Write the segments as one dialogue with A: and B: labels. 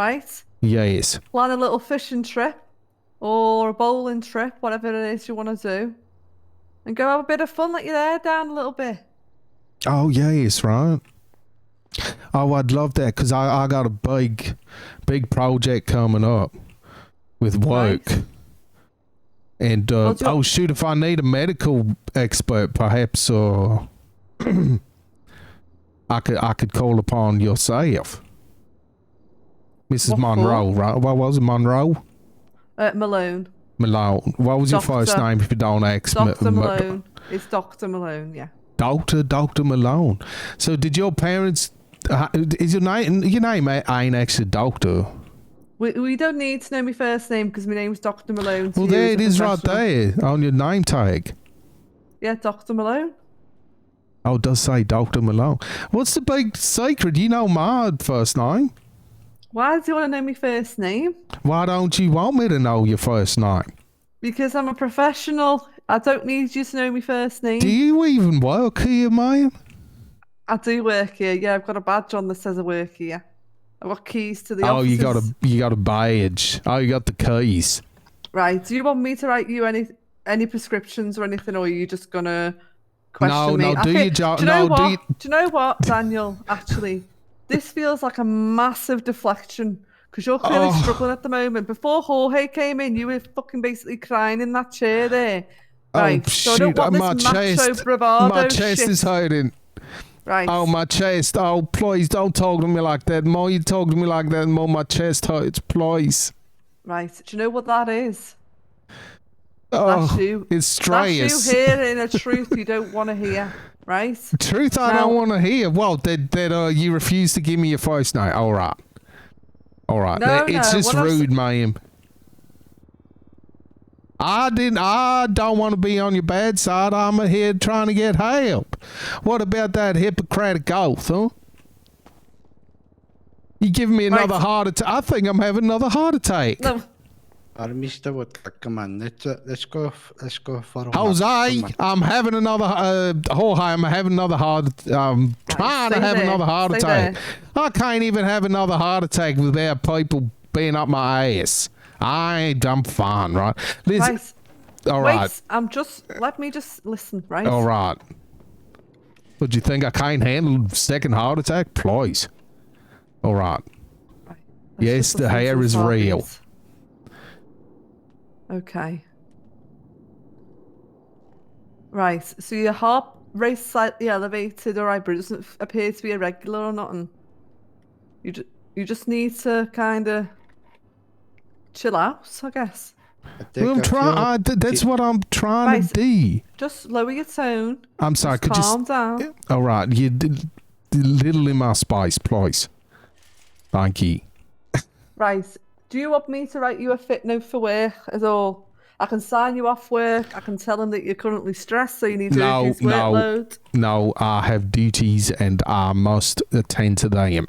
A: right?
B: Yes.
A: Plan a little fishing trip or a bowling trip, whatever it is you want to do, and go have a bit of fun. Let your hair down a little bit.
B: Oh, yes, right. Oh, I'd love that because I, I got a big, big project coming up with work.
A: Right.
B: And, uh,
A: Well, do-
B: oh, shoot, if I need a medical expert, perhaps, uh, I could I could call upon yourself. Mrs.
A: What for?
B: Monroe, right? What was it, Monroe?
A: Uh, Malone,
B: Malone. What was your first
A: Doctor-
B: name if you don't ask me?
A: Doctor
B: Ma-
A: Malone. It's Doctor Malone. Yeah.
B: Doctor, Doctor Malone. So, did your parents? uh, Is your name? Your name a- ain't actually Doctor.
A: We, we don't need to know my first name because my name's Doctor Malone. to
B: Well,
A: you
B: there
A: as
B: it
A: a
B: is, right
A: professional.
B: there on your name tag.
A: Yeah, Doctor Malone.
B: Oh, it does say Doctor Malone. What's the big secret? You know my first name.
A: Why do you want to know my first name?
B: Why don't you want me to know your first name?
A: Because I'm a professional. I don't need you to know my first name.
B: Do you even work here, man?
A: I do work here. Yeah, I've got a badge on that says I work here. I've got keys to the
B: Oh, you got
A: offices.
B: a you got a badge. Oh, you got the keys.
A: Right. Do you want me to write you any any prescriptions or anything, or are you just gonna question
B: No,
A: me?
B: no, do your job-
A: Do you know
B: no, do
A: what?
B: you-
A: do you know what, Daniel? Actually, this feels like a massive deflection because you're clearly
B: Oh.
A: struggling at the moment. Before Jorge came in, you were fucking basically crying in that chair there. Right.
B: oh
A: so
B: shoot!
A: I don't want
B: uh,
A: this
B: my
A: macho
B: chest,
A: bravado
B: my chest
A: shit.
B: is hurting.
A: right.
B: Oh, my chest. Oh, please don't talk to me like that. More you talk to me like that, more my chest hurts. Please.
A: Right. Do you know what that is?
B: Oh,
A: you.
B: it's
A: That's you
B: stress.
A: hearing a truth you don't want to hear. Right.
B: Truth I
A: Now-
B: don't want to hear. Well, that that uh, you refuse to give me your first name. All right. All right.
A: No,
B: That- it's
A: no,
B: just
A: what I'm s-
B: rude, ma'am. I didn't. I don't want to be on your bad side. I'm here trying to get help. What about that Hippocratic oath, huh? You giving me
A: Right.
B: another heart attack? I think I'm having another heart attack.
A: No.
C: Mister Woodcock, come on, let's uh, let's go f- let's go for a walk,
B: Jose,
C: come on.
B: I'm having another. Uh, Jorge, I'm having another heart. I'm trying to
A: stay
B: have
A: there,
B: another heart
A: stay
B: attack. I can't even have another heart attack without people being up my ass. I, I'm fine, right? Listen,
A: Right.
B: all
A: Wait,
B: right,
A: I'm just. Let me just listen, right?
B: all right. Would you think I can't handle second heart attack? Please. All right.
A: Right. Let's
B: Yes,
A: just
B: the
A: listen to
B: hair is real.
A: targets. Okay. Right. So your heart rate slightly elevated, all right, but it doesn't f- appear to be irregular or nothing. You ju- you just need to kind of chill out, I guess.
C: I take
B: Well, I'm
C: a few-
B: trying. That's what I'm trying to do.
A: Just lower your tone.
B: I'm sorry.
A: just
B: Could you?
A: calm down.
B: All right, you did little in my spice, please. Thank you.
A: Right. Do you want me to write you a fit note for work at all? I can sign you off work. I can tell them that you're currently stressed, so you need to
B: No,
A: reduce
B: no.
A: workload.
B: No, I have duties and I must attend to them.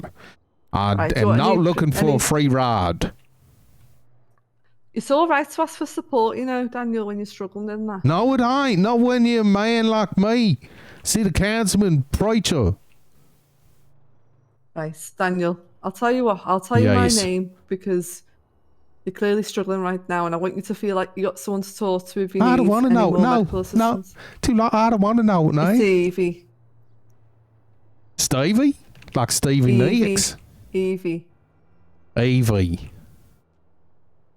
B: I
A: Right, do
B: am
A: I
B: not
A: need-
B: looking for
A: any-
B: a free ride.
A: It's all right to ask for support, you know, Daniel, when you're struggling in that.
B: No, it ain't. Not when you're a man like me. See the councilman preacher.
A: Right, Daniel. I'll tell you what. I'll tell you
B: Yes.
A: my name because you're clearly struggling right now, and I want you to feel like you got someone to talk to if you
B: I
A: need
B: don't want to
A: any
B: know.
A: more
B: No,
A: medical
B: no.
A: assistance.
B: Too long. I don't want to know.
A: It's
B: No,
A: Evie.
B: Stevie, like Stevie
A: Evie.
B: Nicks.
A: Evie.
B: Evie.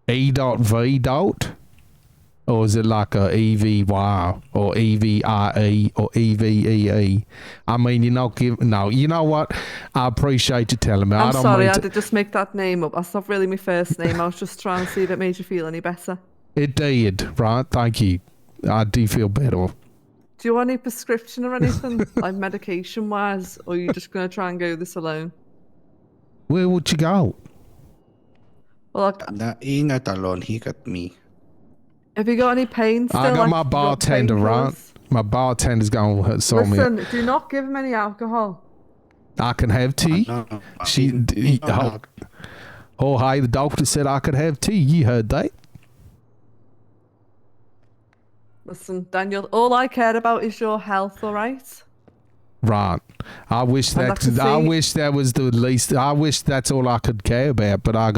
B: E dot V dot? Or is it like a EVY or E EVIE or E EVEE? I mean, you're not giving. No, you know what? I appreciate you telling me. I
A: I'm
B: don't
A: sorry,
B: mean
A: I
B: to-
A: did just make that name up. That's not really my first name. I was just trying to see if it made you feel any better.
B: It did, right? Thank you. I do feel better.
A: Do you want any prescription or anything, like medication wise, or are you just going to try and go this alone?
B: Where would you go?
A: Well, like,
C: No, he not alone. He got me.
A: have you got any pain still?
B: I got
A: like,
B: my
A: you got
B: bartender, right?
A: painkillers?
B: My bartender's going to sell me.
A: Listen, do not give him any alcohol.
B: I can have tea.
C: No,
B: She-
C: he-
B: d-
C: he
B: he-
C: not
B: how-
C: out.
B: Oh, hey, the doctor said I could have tea. You heard that?
A: Listen, Daniel, all I care about is your health, all right?
B: Right. I wish
A: I'd
B: that
A: like to
B: I
A: see-
B: wish that was the least I wish that's all I could care about, but I